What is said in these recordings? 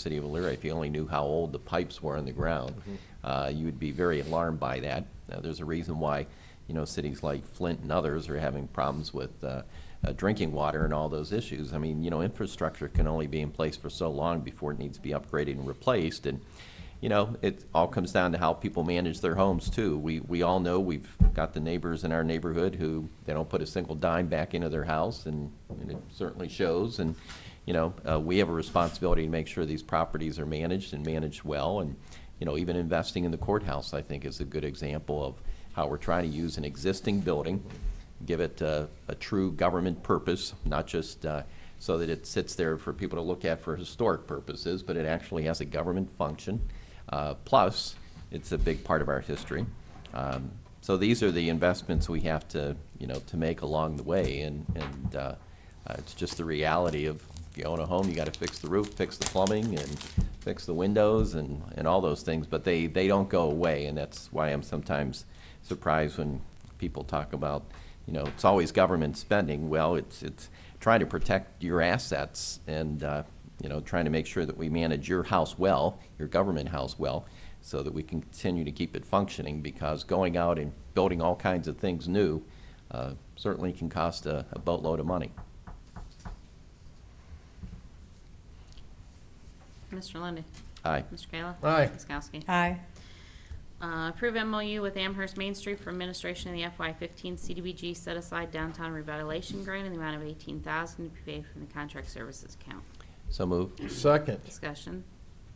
city of Elyria, if you only knew how old the pipes were in the ground, uh, you would be very alarmed by that. Now, There's a reason why, you know, cities like Flint and others are having problems with uh, uh, drinking water and all those issues. I mean, you know, infrastructure can only be in place for so long before it needs to be upgraded and replaced. And, you know, it all comes down to how people manage their homes too. We, we all know, we've got the neighbors in our neighborhood who, they don't put a single dime back into their house and, and it certainly shows. And, you know, uh, we have a responsibility to make sure these properties are managed and managed well. And, you know, even investing in the courthouse, I think, is a good example of how we're trying to use an existing building, give it uh, a true government purpose, not just uh, so that it sits there for people to look at for historic purposes, but it actually has a government function. Uh, Plus, it's a big part of our history. Um, So these are the investments we have to, you know, to make along the way, and, and uh, uh, It's just the reality of, if you own a home, you gotta fix the roof, fix the plumbing, and fix the windows, and, and all those things, but they, they don't go away, and that's why I'm sometimes surprised when people talk about, you know, it's always government spending, well, it's, it's trying to protect your assets, and, uh, you know, trying to make sure that we manage your house well, your government house well, so that we can continue to keep it functioning, because going out and building all kinds of things new uh, certainly can cost a a boatload of money. Mr. Lundy, Aye. Mr. Kayla. Aye. Ms. Kowski. Aye. Uh, Approve MOU with Amherst Main Street for administration of the FY15 CDBG set aside downtown revitalization grant in the amount of 18000 to be paid from the contract services account. So move. Second. Discussion.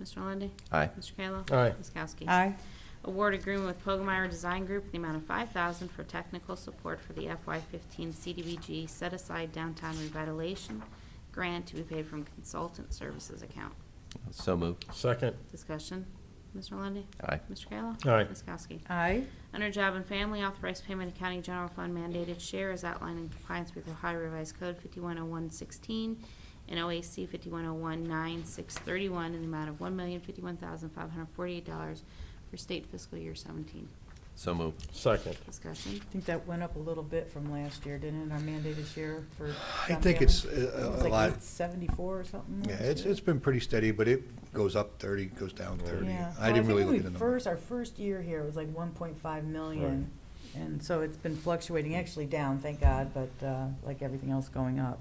Mr. Lundy, Aye. Mr. Kayla. Aye. Ms. Kowski. Aye. Award agreement with Pogemeyer Design Group in the amount of 5000 for technical support for the FY15 CDBG set aside downtown revitalization grant to be paid from consultant services account. So move. Second. Discussion. Mr. Lundy, Aye. Mr. Kayla. Aye. Ms. Kowski. Aye. Under Job and Family, authorized payment of county general fund mandated share is outlined in compliance with Ohio Revised Code 510116 and OAC 51019631 in the amount of $1,051,548 for state fiscal year 17. So move. Second. Discussion. I think that went up a little bit from last year, didn't it, our mandated share for? I think it's uh, a lot, Seventy-four or something? yeah, last it's, year? it's been pretty steady, but it goes up thirty, goes down thirty. Yeah. I Well, didn't think really when look we at the number. First, our first year here was like one point five million, and so it's been fluctuating, actually down, thank God, but, uh, like everything else going up.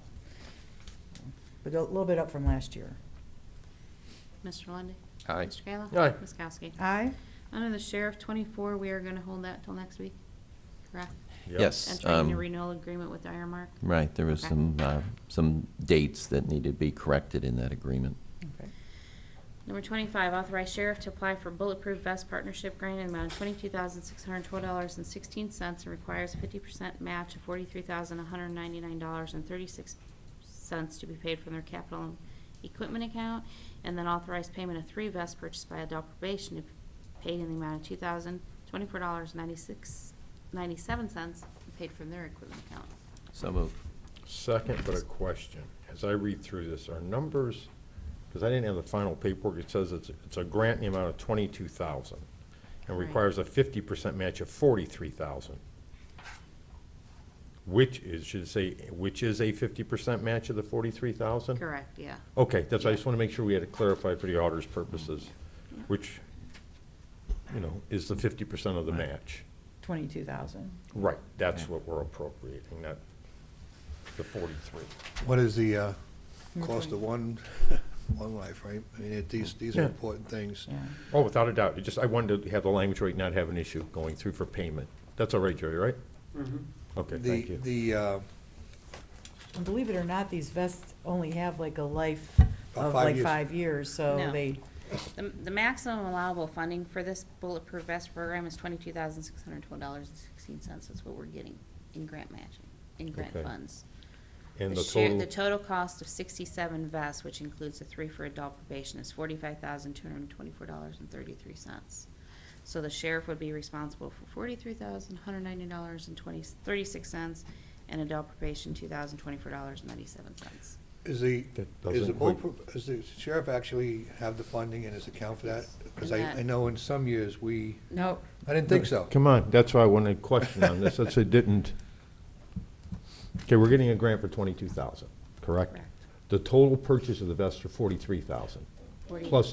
But a little bit up from last year. Mr. Lundy, Aye. Mr. Kayla. Aye. Ms. Kowski. Aye. Under the Sheriff 24, we are going to hold that till next week, correct? Yep. Yes. Entering the um, renewal agreement with Ironmark. Right, there was Okay. some, uh, some dates that needed to be corrected in that agreement. Okay. Number twenty-five, authorize sheriff to apply for bulletproof vest partnership grant in the amount of twenty-two thousand six hundred twelve dollars and sixteen cents and requires a fifty percent match of forty-three thousand one hundred ninety-nine dollars and thirty-six cents to be paid from their capital and equipment account, and then authorize payment of three vests purchased by adult probation to be paid in the amount of two thousand twenty-four dollars ninety-six, ninety-seven cents paid from their equipment account. So move. Second, but a question. As I read through this, are numbers, because I didn't have the final paperwork, it says it's, it's a grant in the amount of twenty-two thousand and Right. requires a fifty percent match of forty-three thousand. Which is, should it say, which is a fifty percent match of the forty-three thousand? Correct, yeah. Okay, that's, I just want to make sure we had it clarified for the auditor's purposes, Yeah. which, you know, is the fifty percent of the match. Twenty-two thousand. Right, that's Yeah. what we're appropriating, not the forty-three. What is the, uh, Number cost of twenty. one, one life, right? I mean, it, these, these are Yeah. important things. Yeah. Oh, without a doubt, it just, I wanted to have the language right, not have an issue going through for payment. That's all right, Jerry, right? Okay, The, thank you. the, uh, And believe it or not, these vests only have like a life About of five like years. five years, so No. they, The, the maximum allowable funding for this bulletproof vest program is twenty-two thousand six hundred and twelve dollars and sixteen cents, that's what we're getting in grant matching, in grant Okay. funds. And the share- total, The total cost of sixty-seven vests, which includes the three for adult probation, is forty-five thousand two hundred and twenty-four dollars and thirty-three cents. So the sheriff would be responsible for forty-three thousand one hundred ninety dollars and twenty, thirty-six cents, and adult probation, two thousand twenty-four dollars and ninety-seven cents. is the, That is doesn't the, include- bullproof- is the sheriff actually have the funding in his account for that? Yes. Because I, I know in some years, we, No, I didn't think so. come on, that's why I wanted a question on this, that's, it didn't. Okay, we're getting a grant for twenty-two thousand, correct? Correct. The total purchase of the vests are forty-three thousand. Forty- Plus